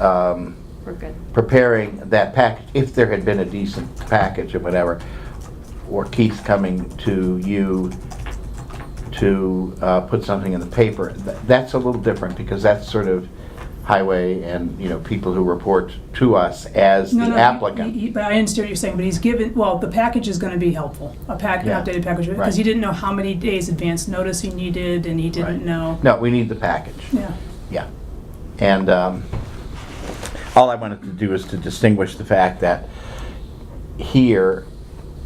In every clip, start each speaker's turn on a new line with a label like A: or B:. A: um,
B: We're good.
A: preparing that package, if there had been a decent package or whatever, or Keith coming to you to uh, put something in the paper, th- that's a little different, because that's sort of highway and, you know, people who report to us as the
C: No, no, he-
A: applicant.
C: he- But I understand what you're saying, but he's given, well, the package is gonna be helpful, a pack, an
A: Yeah,
C: updated package,
A: right.
C: because he didn't know how many days advance notice he needed, and he
A: Right.
C: didn't know.
A: No, we need the package.
C: Yeah,
A: Yeah. And um, all I wanted to do is to distinguish the fact that here,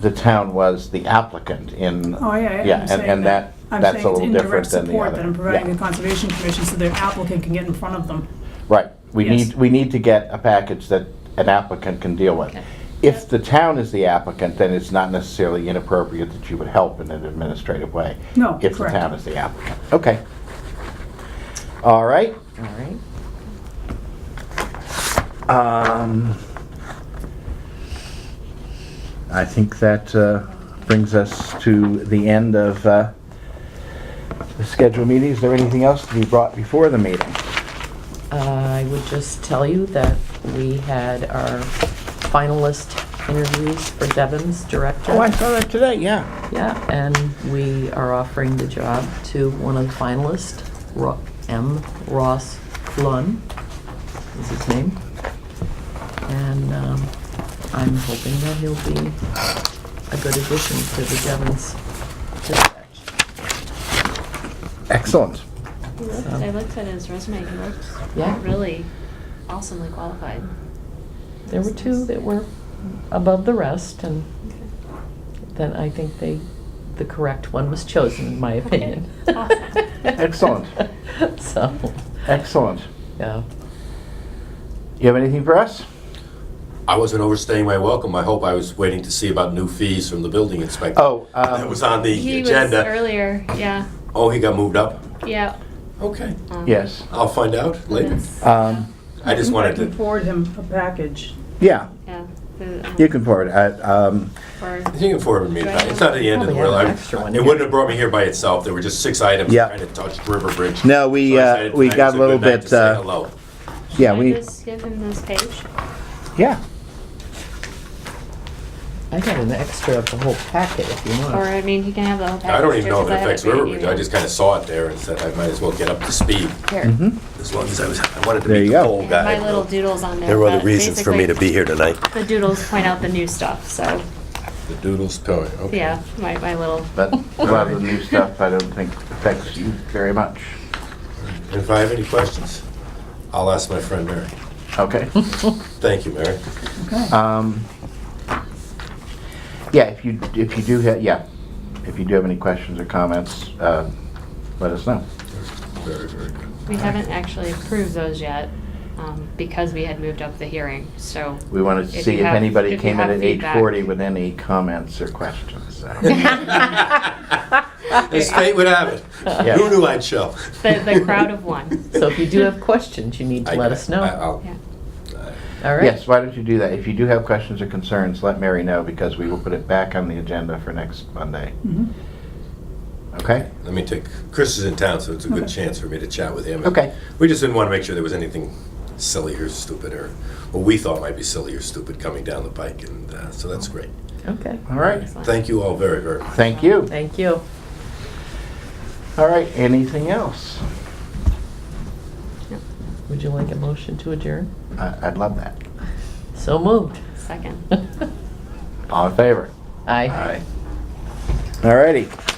A: the town was the applicant in.
C: oh, yeah, yeah,
A: Yeah,
C: I'm
A: and-
C: saying
A: and that,
C: I'm
A: that's a
C: saying it's
A: little different
C: indirect
A: than the
C: support
A: other.
C: that I'm providing
A: Yeah.
C: the Conservation Commission so their applicant can get in front of them.
A: Right. We
C: Yes.
A: need, we need to get a package that an applicant can deal with.
B: Okay.
A: If the town is the applicant, then it's not necessarily inappropriate that you would help in an administrative way.
C: No,
A: If the
C: correct.
A: town is the applicant. Okay. All right.
D: All right.
A: Um, I think that uh, brings us to the end of uh, the scheduled meeting. Is there anything else to be brought before the meeting?
D: I would just tell you that we had our finalist interviews for Devon's director.
A: Oh, I saw that today, yeah.
D: Yeah, and we are offering the job to one of the finalists, Ro- M. Ross Lund is his name. And um, I'm hoping that he'll be a good addition to the Devon's dispatch.
A: Excellent.
B: I looked- I looked at his resume, he looked
D: Yeah.
B: really awesomely qualified.
D: There were two that were above the rest, and then I think they, the correct one was chosen, in my opinion.
B: Awesome.
A: Excellent.
D: So,
A: Excellent.
D: yeah.
A: You have anything for us?
E: I wasn't overstaying my welcome. I hope I was waiting to see about new fees from the building inspector.
A: Oh,
E: That
A: um,
E: was on the
B: He was
E: agenda.
B: earlier, yeah,
E: Oh, he got moved up?
B: yeah.
E: Okay,
B: um,
A: yes.
E: I'll find out later.
B: that's-
A: Um,
E: I just wanted
C: I can
E: to,
C: forward him a package.
A: Yeah,
B: Yeah. the, um,
A: you can forward. it. I- um,
B: for-
E: you can forward me, that. it's not the end of the
D: Probably
E: world.
D: have an
E: I-
D: extra one
E: It
D: here.
E: wouldn't have brought me here by itself. There were just six items
A: Yeah.
E: that kind of touched River Bridge.
A: No, we,
E: So I
A: uh,
E: said
A: we
E: tonight
A: got
E: was
A: a little
E: good night
A: bit,
E: to say
A: uh,
E: hello.
A: Yeah,
B: Can I
A: we,
B: just give him this page?
A: yeah.
D: I got an extra of the whole packet if you
B: Or,
D: want.
B: I mean, he can have the whole package.
E: I don't even know if
B: just
E: it
B: as I have
E: affects
B: right
E: River Bridge. I
B: here.
E: just kind of saw it there and said I might as well get up to speed.
B: Here.
A: Mhm.
E: As long as I was, I wanted to
A: There
E: meet
A: you
E: the
A: go.
E: whole
B: And My little
E: guy.
B: doodles on there.
E: There were other
B: but
E: reasons for me to
B: basically,
E: be here tonight.
B: The doodles point out the new stuff, so,
E: The doodles, okay.
B: yeah, my, my little,
A: But a lot of the new stuff, I don't think affects you very much.
E: And if I have any questions, I'll ask my friend Mary.
A: Okay.
E: Thank you, Mary.
A: Um, Yeah, if you, if you do, ha- yeah, if you do have any questions or comments, uh, let us know.
E: Very, very good.
B: we haven't actually approved those yet, um, because we had moved up the hearing, so.
A: We wanted to
B: If
A: see
B: you
A: if
B: have-
A: anybody
B: if you
A: came in
B: have
A: at eight
B: feedback.
A: forty with any comments or questions. so.
E: As fate would have it.
A: Yeah.
E: Who knew I'd show?
B: The, the crowd of one,
D: So if you do have questions, you need to
E: I-
D: let us
E: I- uh,
D: know.
E: I'll-
B: yeah.
D: All right?
A: Yes, why don't you do that? If you do have questions or concerns, let Mary know because we will put it back on the agenda for next Monday.
E: Mm-hmm.
C: Mhm.
A: Okay?
E: Let me take, Chris is in town, so it's a good
C: Okay.
E: chance for me to chat with him.
A: Okay.
E: We just didn't want to make sure there was anything silly or stupid or, what we thought might be silly or stupid coming down the pike, and uh, so
B: Oh,
E: that's great.
D: Okay.
A: All right.
B: Excellent.
E: Thank you all very, very much.
A: Thank you.
D: Thank you.
A: All right, anything else?
D: Would you like a motion to adjourn?
A: I- I'd love that.
D: So moved.
B: Second.
A: All in favor?
D: Aye.
A: All righty.